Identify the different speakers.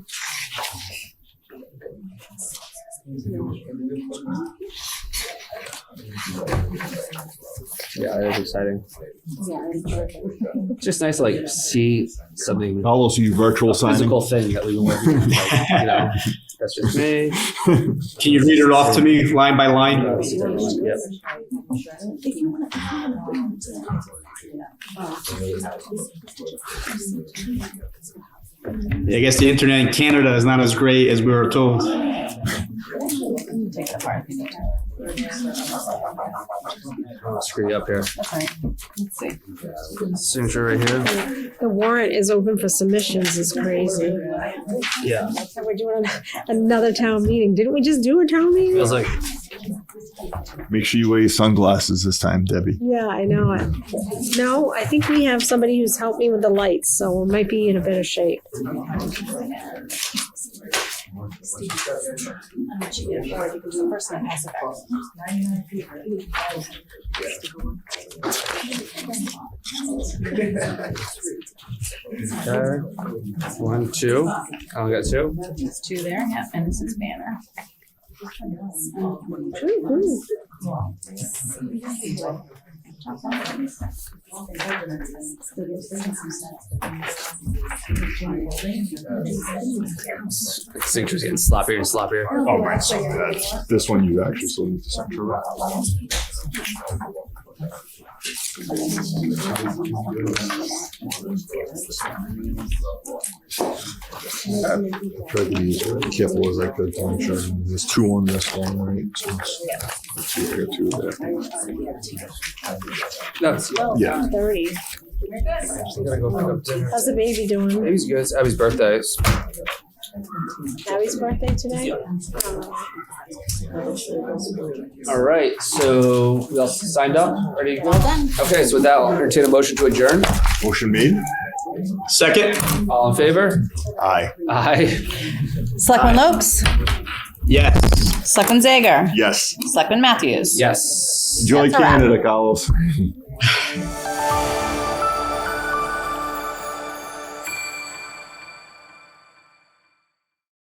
Speaker 1: Yeah, it is exciting.
Speaker 2: Yeah.
Speaker 1: It's just nice to like see something
Speaker 3: I'll also you virtual signing.
Speaker 1: physical thing that we can work with. Like, you know, that's just me. Uh,
Speaker 4: Can you read it off to me line by line?
Speaker 1: Yep.
Speaker 4: I guess the internet in Canada is not as great as we were told.
Speaker 1: Screw you up here. Signature right here.
Speaker 5: The warrant is open for submissions is crazy.
Speaker 1: Yeah.
Speaker 5: And we're doing another town meeting. Didn't we just do a town
Speaker 1: I
Speaker 5: meeting?
Speaker 1: was like,
Speaker 3: Make sure you wear your sunglasses this time, Debbie.
Speaker 5: Yeah, I know it. No, I think we have somebody who's helped me with the lights, so we might be in a better shape.
Speaker 1: okay. uh, One, two. I only got two.
Speaker 2: There's two there, yeah, and this is banner.
Speaker 1: Signature's getting sloppier and sloppier.
Speaker 3: Oh, my son, that's this one you actually still need to center up. Try to be as careful as I could. to make sure There's two on this one, right? So it's- let's see, I got two there.
Speaker 1: No, it's, I
Speaker 3: Yeah.
Speaker 5: Thirty.
Speaker 1: gotta go pick up dinner.
Speaker 5: How's the baby doing?
Speaker 1: Baby's good. It's Abby's birthday. It's
Speaker 5: Abby's birthday today?
Speaker 1: All right, so we all signed up, ready to go? Okay, so with that, I'll entertain a motion to adjourn.
Speaker 3: Motion made?
Speaker 4: Second?
Speaker 1: All in favor?
Speaker 3: Aye.
Speaker 1: Aye.
Speaker 2: Selectman Lopes,
Speaker 4: Yes.
Speaker 2: Selectman Zager,
Speaker 3: Yes.
Speaker 2: Selectman Matthews.
Speaker 1: Yes.
Speaker 3: Enjoy
Speaker 2: That's a wrap.
Speaker 3: Canada, Carlos.